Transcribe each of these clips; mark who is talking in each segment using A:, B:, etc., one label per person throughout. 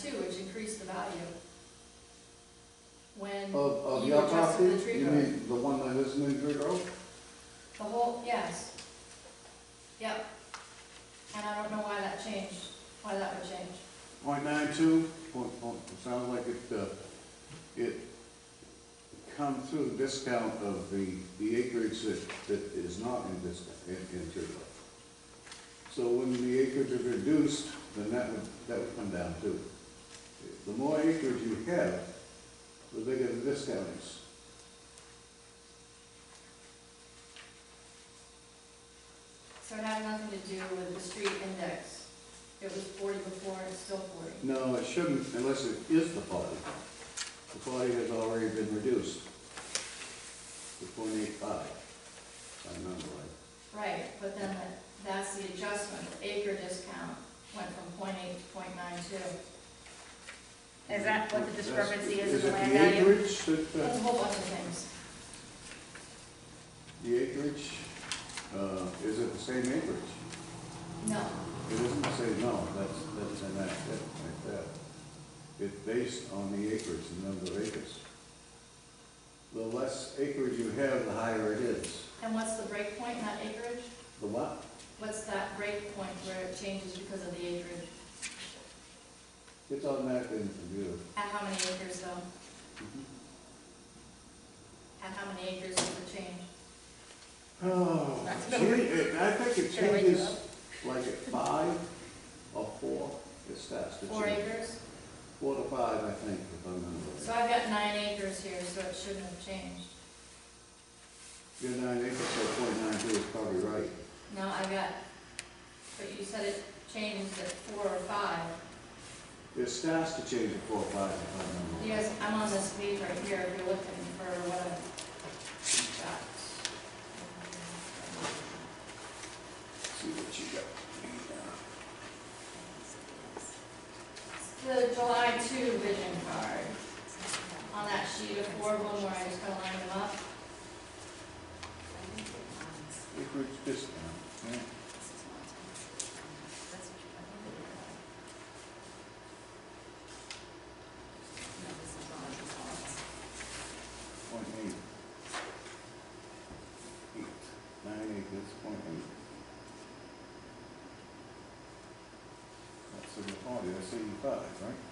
A: too, which increased the value. When
B: Of, of
A: you
B: your
A: adjusted
B: property?
A: the tree
B: You
A: growth.
B: mean the one that is in Tree Grove?
A: the whole, yes. Yep. And I don't know why that changed, why that would change.
B: Point nine two, point, point, it sounds like it, uh, it come through the discount of the, the acreage that, that is not in discount, in, in Tree Grove. So when the acreage is reduced, then that would, that would come down too. The more acreage you have, the bigger the discount is.
A: So it had nothing to do with the street index. It was forty before, and it's still forty.
B: No, it shouldn't unless it is the forty. The forty has already been reduced to point eight five, if I remember right.
A: Right, but then that- that's the adjustment, The acre discount went from point eight to point nine two.
C: Is that what the discrepancy is in
B: Is
C: the
B: it
C: land
B: the
C: value?
B: acreage that,
A: That's
B: uh,
A: a whole bunch of things.
B: the acreage, uh, is it the same acreage?
A: No,
B: It isn't the same, no, that's, that's an act, that, like that. It's based on the acreage, the number of acres. The less acreage you have, the higher it is.
A: and what's the break point, not acreage?
B: The what?
A: What's that break point where it changes because of the acreage?
B: It's on that in the computer.
A: At how many acres though? At how many acres does it change?
B: Oh,
C: That's
B: gee,
C: gonna wake-
B: it- I think it
C: gonna wake you
B: changes
C: up.
B: like at five or four, it starts to
A: Four
B: change.
A: acres?
B: Four to five, I think, if I remember.
A: So
B: right.
A: I've got nine acres here, so it shouldn't have changed.
B: Your nine acres, so point nine two is probably right.
A: No, I've got, but you said it changed at four or five.
B: It starts to change at four or five, if I remember. right.
A: You guys, I'm on this page right here, if you're looking for what I've got.
B: See what you got.
A: The July two vision card, on that sheet of four, one where I just kind of lined them up.
B: Acreage discount. yeah. Point eight. Eight, nine acres, point eight. That's the forty, that's eighty-five, right?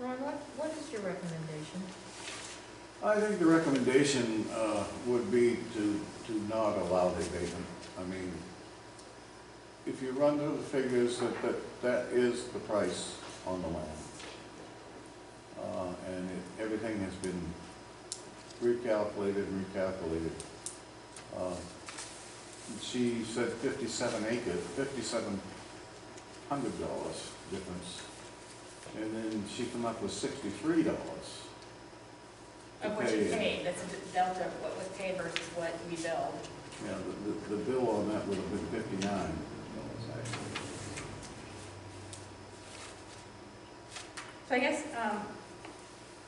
D: Ron, what, what is your recommendation?
B: I think the recommendation uh, would be to, to not allow the abatement. I mean, if you run through the figures, that, that, that is the price on the land. Uh, And it- everything has been recalculated, recalculated. Uh, She said fifty-seven acres, fifty-seven hundred dollars difference. And then she come up with sixty-three dollars.
C: Of what you paid, that's the delta of what was paid versus what we billed.
B: Yeah, the- the, the bill on that would have been fifty-nine dollars, actually.
C: So I guess, um,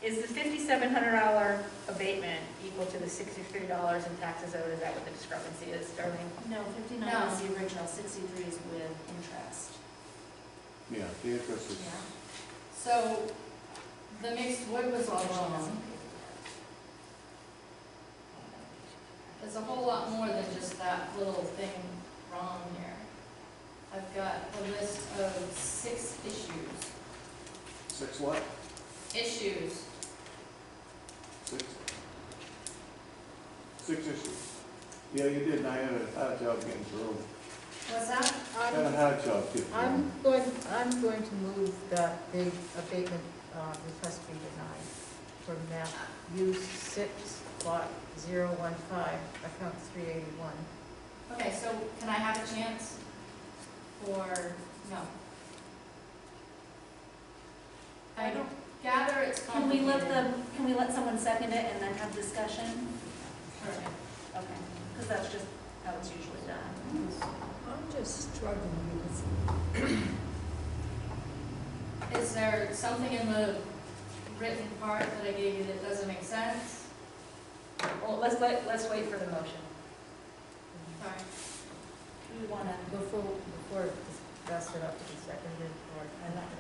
C: is the fifty-seven hundred dollar abatement equal to the sixty-three dollars in taxes owed? Is that what the discrepancy is, Darlene?
A: No.
E: No, fifty-nine is the original, sixty-three is with interest.
B: Yeah, the interest is,
A: So, the mixed wood was all wrong. There's a whole lot more than just that little thing wrong here. I've got a list of six issues.
B: six what?
A: Issues,
B: Six? Six issues. Yeah, you did, and I had a hard job getting through.
A: what's that?
B: Had a
D: I'm,
B: hard job getting
D: Um, I'm
B: through.
D: going, I'm going to move that the abatement uh, request be denied for map U six lot zero one five, account three eighty-one.
A: Okay, so can I have a chance? Or, no? I don't gather it's
E: Can we
A: complicated.
E: let them, can we let someone second it and then have discussion?
A: Sure.
E: Okay, because that's just how it's usually done.
F: I'm just struggling with
A: Is there something in the written part that I gave you that doesn't make sense?
C: Well, let's, let- let's wait for the motion.
A: Sorry.
E: We want to,
D: Before, before it was passed it up to be seconded or
E: I'm not going to